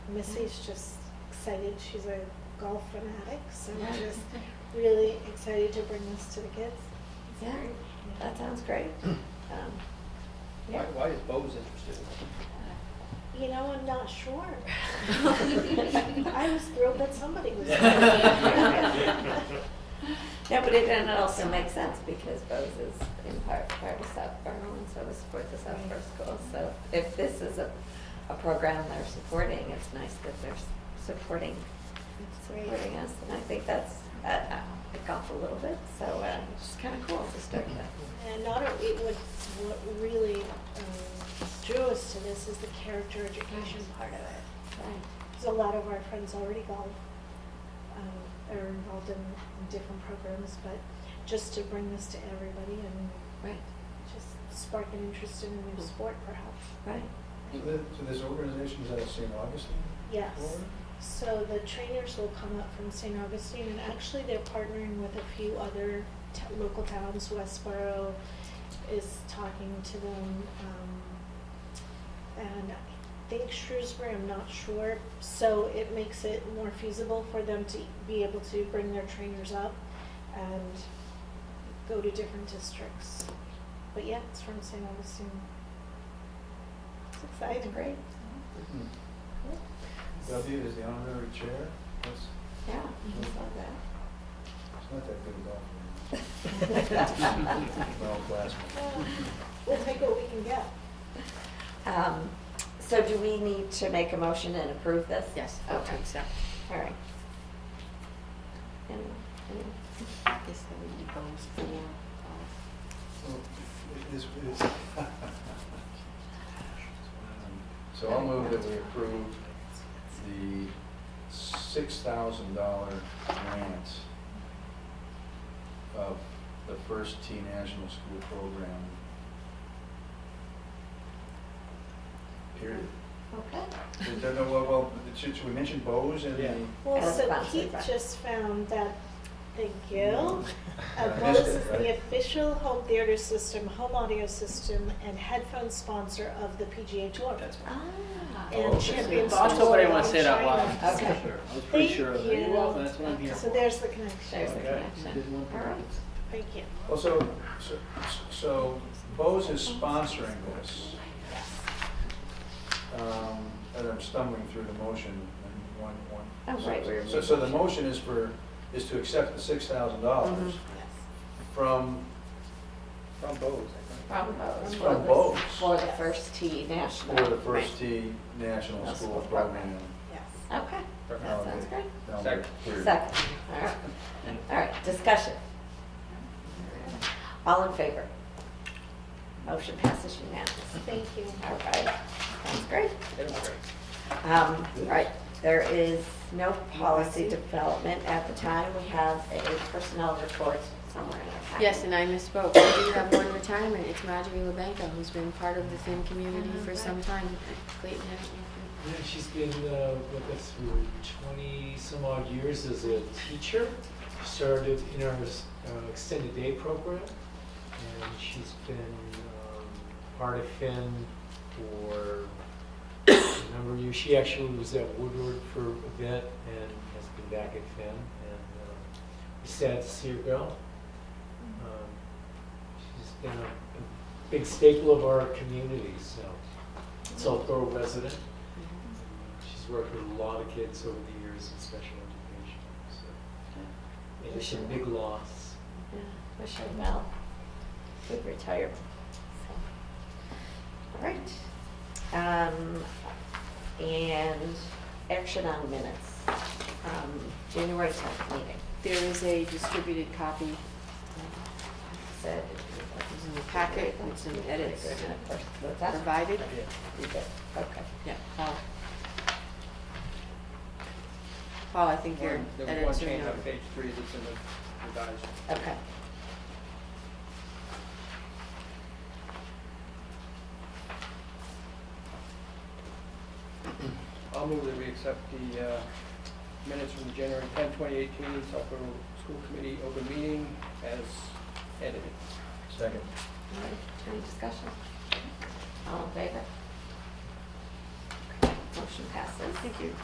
Missy's just excited. She's a golf fanatic, so Yeah. just really excited to bring this to the kids. Yeah, that sounds great. Um, Why, yeah. why is Bose interested? You know, I'm not sure. I was thrilled that somebody was. there. No, but it, and it also makes sense because Bose is in part, part of Southborough and so is support the Southborough schools. So if this is a, a program they're supporting, it's nice that they're s- supporting, It's supporting great. us. And I think that's, that, uh, it got a little bit, so, uh, it's just kind of cool to start that. And not, o- it what, what really um, drew us to this is the character education part of it. Right. Because a lot of our friends already golf, um, are involved in, in different programs, but just to bring this to everybody and Right, just spark an interest in a new sport perhaps. right. So thi- so there's organizations out of St. Augustine? Yes. Florida? So the trainers will come up from St. Augustine, and actually they're partnering with a few other t- local towns. Westboro is talking to them, um, and I think Shrewsbury. I'm not sure. So it makes it more feasible for them to be able to bring their trainers up and go to different districts. But yeah, it's from St. Augustine. It's That's exciting. great. Hmm. W is the honorary chair, that's, Yeah, I love that. it's not that good a golf. Well, Uh, classmate. We'll take what we can get. Um, So do we need to make a motion and approve this? Yes, vote to Okay, accept. all right. Anyone? Anyone? I guess that would be those four. uh, Well, Oh, it is- it is- So I'll move that we approve the six thousand dollar grant of the first T National School Program. Period. Okay. Is there no- Well, well, should should we mention Bose and Yeah. the? Well, As so sponsored Keith by- just found that, thank Mm. you. I Uh, Bose missed it, is the right? official home theater system, home audio system, and headphone sponsor of the PGA Tour. That's fine. Ah, Oh, okay. And champions. Also, of the what I world wanna in say it out China. loud. Okay. Sure, I was pretty Thank sure of that. You're you. welcome, that's what I'm here for. So there's the connection. There's the Okay, you did connection. one for All right. us. Thank you. Well, so, so- so Bose is sponsoring this. Um, And I'm stumbling through the motion in one, one. Oh, right, we're- So, so the motion is for, is to accept the six thousand dollars Mm-hmm. from, From Bose, I From Bose. From for the- Bose. For the first T national. for the Right. First Tee National National School Program. Program. Yes. Okay, that sounds great. Down Second. here. Second, all right, all right, discussion. All in favor? Motion passes unanimously. Thank you. All right, sounds great. think. That's great. Um, right, there is no policy development at the time. We have a personnel report somewhere in our packet. Yes, and I misspoke. We do have one retirement. It's Marjorie LaBanca, who's been part of the Finn community for some time. Mm-hmm. Clayton, haven't Yeah, she's been uh, with us for 20 some odd years as a teacher. She started in our uh, extended day program, and she's been um, part of Finn for a number of years. She actually was at Woodward for a bit and has been back at Finn, and um, we're sad to see her go. Um, She's been a a big staple of our community, so, Southborough resident. She's worked with a lot of kids over the years in special education, so Yeah. it's a big loss. Yeah, Wish her well. Good retirement. So, All right. Um, and action on minutes from January tenth meeting. There is a distributed copy um, Said. It's in the packet with some edits. And of course, was that provided. You did, okay. Yeah, Oh. Paul. Paul, I think your One- There was one edits are change on noted. page three that's in the revised. Okay. I'll move that we accept the uh, minutes from the January 10, 2018 Southborough School Committee open meeting as edited. Second. All right, any discussion? All in favor? Motion passes. Thank you.